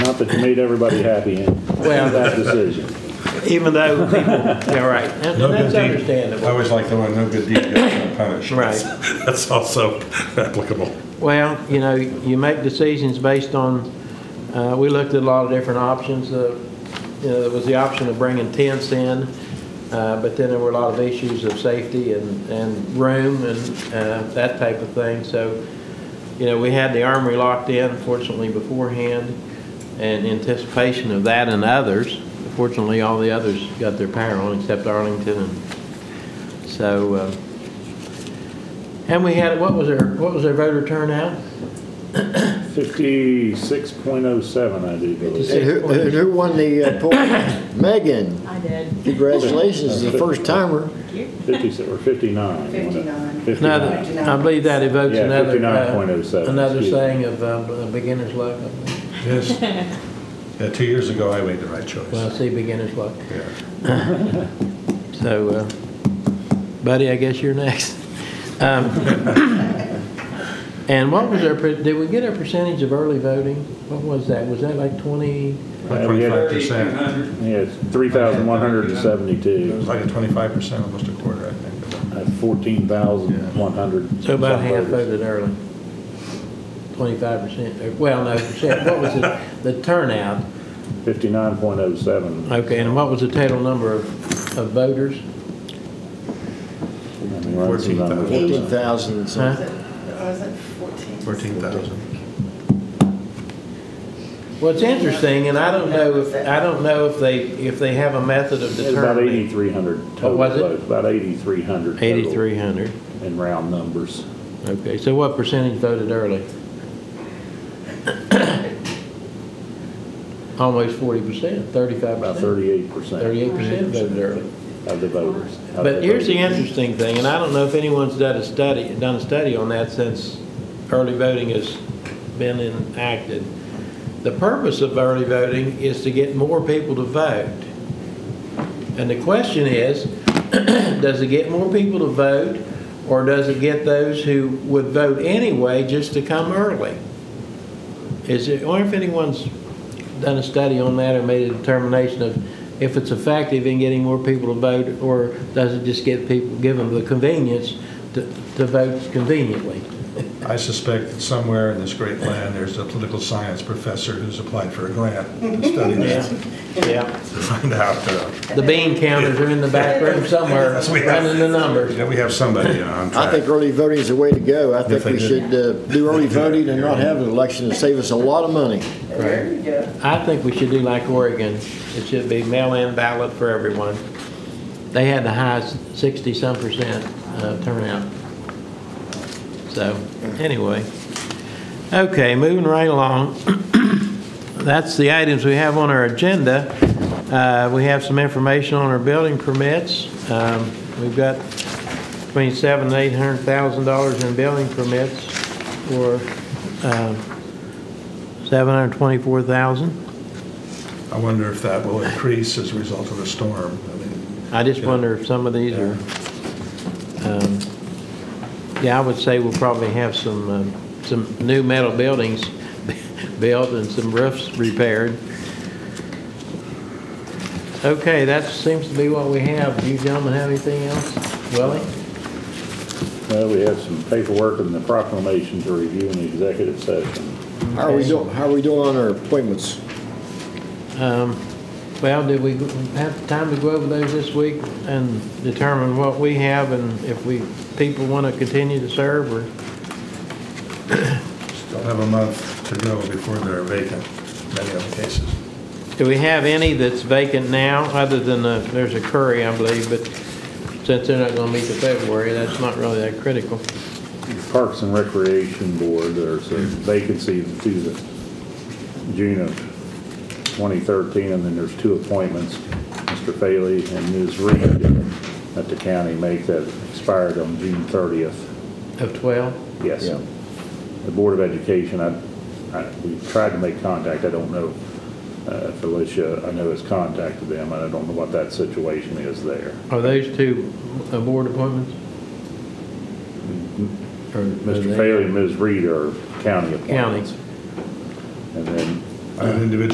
want, but you made everybody happy in that decision. even though people, yeah, right, and No and that's good deed- I understandable. always like the one, no good deed goes unpunished. Right. That's- That's also applicable. Well, you know, you make decisions based on, uh, we looked at a lot of different options. uh, You know, there was the option of bringing tents in, uh, but then there were a lot of issues of safety and, and room and uh, that type of thing. So, you know, we had the armory locked in fortunately beforehand and anticipation of that and others. Fortunately, all the others got their power on except Arlington and so, uh, and we had, what was our, what was our voter turnout? 56.07, I do believe. And Who, and who won the uh, poll? Megan. I did. Congratulations, the first timer. 50, or 59. 59. 59. Fifty Another, nine. I believe that evokes Yeah, another, uh, 59.07, another excuse me. saying of uh, beginner's luck. Yes. Yeah, two years ago, I made the right Well, I choice. see beginner's luck. Yeah. So, uh, Buddy, I guess you're next. Um, And what was our, per- did we get our percentage of early voting? What was that? Was that like 20? Like we had- twenty-five percent. Yes, 3,172, It was like a twenty-five percent, almost a quarter, I think. That's 14,100. So about half voters. voted early. 25%, or- well, no, percent. what was it? The turnout, 59.07. okay, and what was the total number of of voters? I mean, run some numbers. 14,000 Huh? and something. Was it 14? Fourteen thousand. Well, it's interesting, and I don't know if, I don't know if they, if they have a method It of was About determining. 8,300 total was it? votes, about 8,300 total 8,300, in round numbers. okay, so what percentage voted early? Almost 40%, 35%. About 38% 38% voted early. of the voters. of But here's the voters. interesting thing, and I don't know if anyone's done a study, done a study on that since early voting has been enacted. The purpose of early voting is to get more people to vote. And the question is, does it get more people to vote, or does it get those who would vote anyway just to come early? Is it, or if anyone's done a study on that or made a determination of if it's effective in getting more people to vote, or does it just get people, give them the convenience to, to vote conveniently? I suspect that somewhere in this great land, there's a political science professor who's applied for a grant to study this, Yeah. to find out, uh, The bean counters are in the back room somewhere, Yes, we have. running the numbers. yeah, we have somebody on I track. think early voting is the way to go. I think Yes, I we did. should uh, do early voting and not have an election and save us a lot of money. There you go. I think we should do like Oregon. It should be mail-in ballot for everyone. They had the highest sixty-some percent uh, turnout. So, anyway. Okay, moving right along. That's the items we have on our agenda. Uh, We have some information on our building permits. Um, We've got between seven and eight hundred thousand dollars in building permits for seven hundred twenty-four thousand. I wonder if that will increase as a result of the storm. I mean, I just Yeah. wonder if some of these are, um, yeah, I would say we'll probably have some, um, some new metal buildings built and some roofs repaired. Okay, that seems to be what we have. Do you gentlemen have anything else? Willie? Well, we have some paperwork and the proclamation to review in the executive session. How are we doing, how are we doing on our appointments? Um, Well, did we have time to go over those this week and determine what we have and if we, people want to continue to serve or? Still have a month to go before they're vacant, many other cases. Do we have any that's vacant now, other than, uh, there's a Curry, I believe, but since they're not gonna meet the February, that's not really that critical. Parks and Recreation Board, there's a vacancy to the June of 2013, and then there's two appointments, Mr. Faley and Ms. Reed, that the county make that expired on June 30th. Of 12? Yes. Yeah. The Board of Education, I, I, we tried to make contact, I don't know, uh, if Alicia, I know has contacted them, and I don't know what that situation is there. Are those two uh, board appointments? Or- Mr. Faley and Ms. Reed are county appointments. County. And then I have individual